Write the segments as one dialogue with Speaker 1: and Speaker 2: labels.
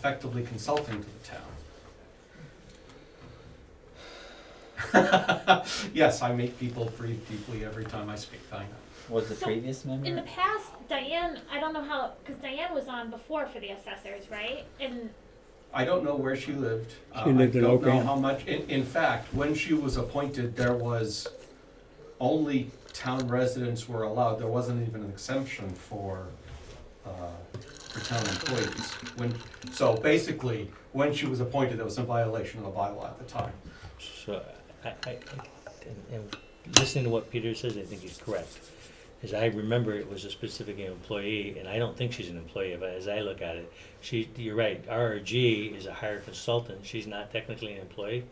Speaker 1: effectively consulting to the town. Yes, I make people breathe deeply every time I speak, I know.
Speaker 2: Was the
Speaker 3: So,
Speaker 2: previous
Speaker 3: In the
Speaker 2: member?
Speaker 3: past, Diane, I don't know how, because Diane was on before for the assessors, right? And
Speaker 1: I don't know where she lived. Uh,
Speaker 4: She lived in
Speaker 1: I don't know
Speaker 4: Oakham.
Speaker 1: how much, in, in fact, when she was appointed, there was only town residents were allowed, there wasn't even an exemption for, uh, for town employees. When, so basically, when she was appointed, there was a violation of the bylaw at the time.
Speaker 5: So, I, I, I- and, and listening to what Peter says, I think he's correct. As I remember, it was a specific employee, and I don't think she's an employee, but as I look at it, she, you're right, RRG is a hired consultant, she's not technically an employee,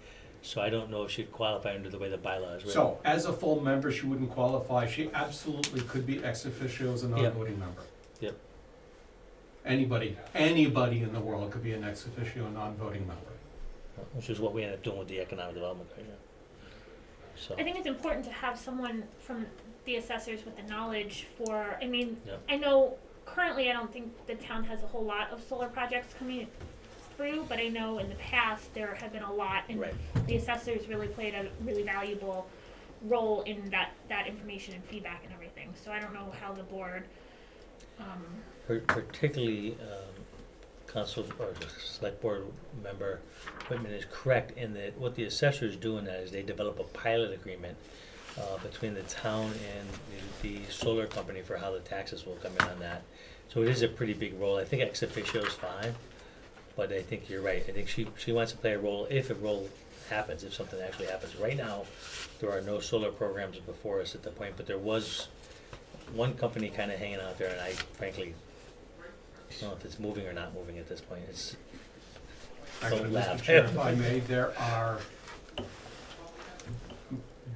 Speaker 5: so I don't know if she'd qualify under the way the bylaw is written.
Speaker 1: So as a full member, she wouldn't qualify. She absolutely could be ex officio as a non-voting member.
Speaker 5: Yep.
Speaker 1: Anybody, anybody in the world could be an ex officio, non-voting member.
Speaker 5: Which is what we end up doing with the economic development right now. So,
Speaker 3: I think it's important to have someone from the assessors with the knowledge for, I mean,
Speaker 5: Yeah.
Speaker 3: I know currently I don't think the town has a whole lot of solar projects coming through, but I know in the past there have been a lot and
Speaker 5: right,
Speaker 3: the assessors really played a really valuable role in that, that information and feedback and everything. So I don't know how the board, um,
Speaker 5: Per- particularly, um, council or the select board member Whitman is correct in that what the assessor is doing now is they develop a pilot agreement uh, between the town and the, the solar company for how the taxes will come in on that. So it is a pretty big role. I think ex officio is fine, but I think you're right. I think she, she wants to play a role if a role happens, if something actually happens. Right now, there are no solar programs before us at the point, but there was one company kind of hanging out there, and I frankly don't know if it's moving or not moving at this point. It's
Speaker 1: Actually,
Speaker 5: Don't
Speaker 1: Mr.
Speaker 5: laugh.
Speaker 1: Chair, if I may, there are,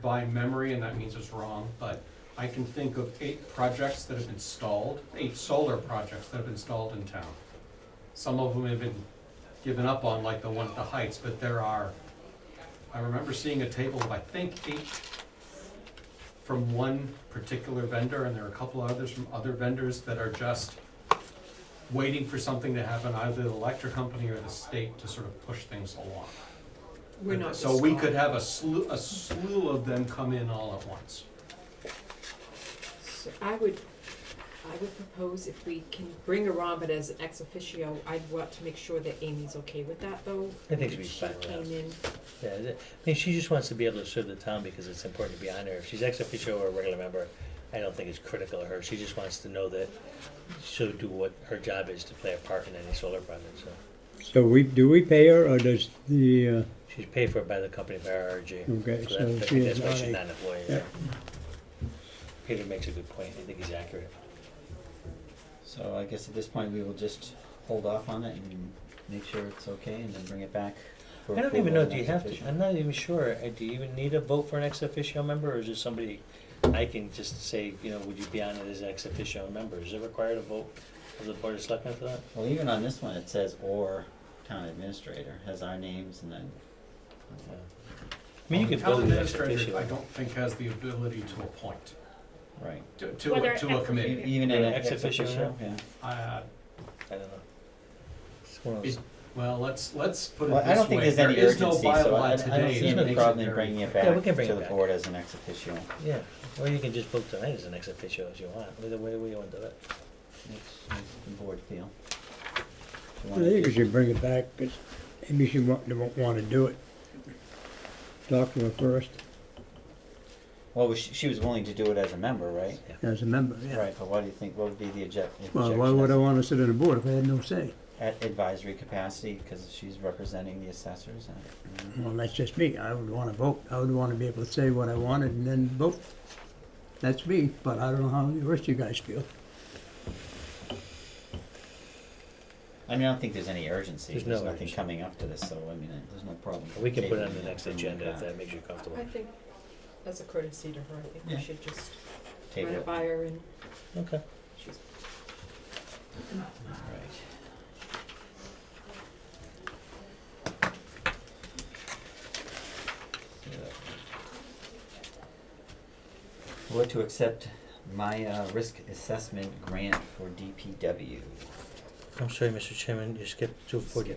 Speaker 1: by memory, and that means it's wrong, but I can think of eight projects that have been stalled, eight solar projects that have been stalled in town. Some of them have been given up on, like the one at the Heights, but there are, I remember seeing a table of, I think, eight from one particular vendor, and there are a couple others from other vendors that are just waiting for something to happen, either the electric company or the state to sort of push things along.
Speaker 6: We're not.
Speaker 1: So we
Speaker 6: disqualified.
Speaker 1: could have a slew, a slew of them come in all at once.
Speaker 6: So I would, I would propose if we can bring her on, but as an ex officio, I'd want to make sure that Amy's okay with that though.
Speaker 5: I think she'd be fine with
Speaker 6: She came
Speaker 5: that.
Speaker 6: in,
Speaker 5: Yeah, is it- I mean, she just wants to be able to serve the town because it's important to be on there. If she's ex officio or a regular member, I don't think it's critical to her. She just wants to know that she'll do what her job is to play a part in any solar project, so.
Speaker 4: So we, do we pay her or does the, uh,
Speaker 5: She's paid for it by the company by RRG.
Speaker 4: Okay,
Speaker 5: So that-
Speaker 4: Mm-hmm. so she
Speaker 5: that's
Speaker 4: is
Speaker 5: why
Speaker 4: not
Speaker 5: she's
Speaker 4: a-
Speaker 5: not an employee,
Speaker 4: yeah.
Speaker 5: yeah. Peter makes a good point. I think he's accurate.
Speaker 2: So I guess at this point, we will just hold off on it and make sure it's okay and then bring it back for
Speaker 5: I don't
Speaker 2: approval
Speaker 5: even know,
Speaker 2: as
Speaker 5: do you
Speaker 2: an
Speaker 5: have to,
Speaker 2: official.
Speaker 5: I'm not even sure, Uh, do you even need a vote for an ex officio member, or is it somebody, I can just say, you know, would you be on it as ex officio member? Is it required a vote of the board of selectmen for that?
Speaker 2: Well, even on this one, it says or town administrator, has our names and then.
Speaker 5: Yeah. I mean, you could
Speaker 1: Town
Speaker 5: build an ex
Speaker 1: administrator,
Speaker 5: officio.
Speaker 1: I don't think has the ability to appoint,
Speaker 2: Right.
Speaker 1: to, to,
Speaker 3: Whether
Speaker 1: a- to a
Speaker 3: ex
Speaker 2: E-
Speaker 1: committee.
Speaker 2: Even in
Speaker 5: Yeah,
Speaker 2: an
Speaker 5: ex
Speaker 2: ex
Speaker 5: officio.
Speaker 2: officio, yeah.
Speaker 1: Uh,
Speaker 5: I don't know. It's one of those-
Speaker 1: well, let's, let's put it
Speaker 2: Well, I
Speaker 1: this
Speaker 2: don't think
Speaker 1: way,
Speaker 2: there's any
Speaker 1: there is
Speaker 2: urgency,
Speaker 1: no
Speaker 2: so I I
Speaker 1: bylaw today.
Speaker 2: don't see
Speaker 1: that
Speaker 2: any
Speaker 1: makes it
Speaker 2: problem in
Speaker 1: very
Speaker 2: bringing it
Speaker 1: clear.
Speaker 2: back
Speaker 5: Yeah, we can bring
Speaker 2: to
Speaker 5: it
Speaker 2: the
Speaker 5: back.
Speaker 2: board as an ex officio.
Speaker 5: yeah, or you can just vote tonight as an ex officio if you want, either way, we want to do it.
Speaker 2: Makes- makes the board feel. Do you
Speaker 4: I
Speaker 2: wanna
Speaker 4: think we
Speaker 2: keep-
Speaker 4: should bring it back, because maybe she won't, won't want to do it. Talk to her first,
Speaker 2: Well, was she, she was willing to do it as a member, right?
Speaker 4: as a member, yeah.
Speaker 2: Right, but why do you think, what would be the object, objection?
Speaker 4: Well, why would I
Speaker 2: as-
Speaker 4: want to sit on the board if I had no say?
Speaker 2: At advisory capacity, because she's representing the assessors and.
Speaker 4: Well, that's just me, I would want to vote, I would want to be able to say what I wanted and then vote. That's me, but I don't know how the rest of you guys feel.
Speaker 2: I mean, I don't think there's any urgency,
Speaker 5: There's
Speaker 2: there's
Speaker 5: no
Speaker 2: nothing
Speaker 5: urgency.
Speaker 2: coming up to this, so I mean, I- there's no problem.
Speaker 5: We can put it on
Speaker 2: tabling
Speaker 5: the next
Speaker 2: and
Speaker 5: agenda
Speaker 2: bringing
Speaker 5: if that
Speaker 2: it back.
Speaker 5: makes you comfortable.
Speaker 6: I think, as a courtesy to her, I think
Speaker 2: Yeah.
Speaker 6: we should just
Speaker 2: Table
Speaker 6: run it
Speaker 2: it.
Speaker 6: by her and
Speaker 5: Okay.
Speaker 6: she's,
Speaker 2: Right. So, Vote to accept my uh, risk assessment grant for DPW.
Speaker 5: I'm sorry, Mr. Chairman, you skipped two forty.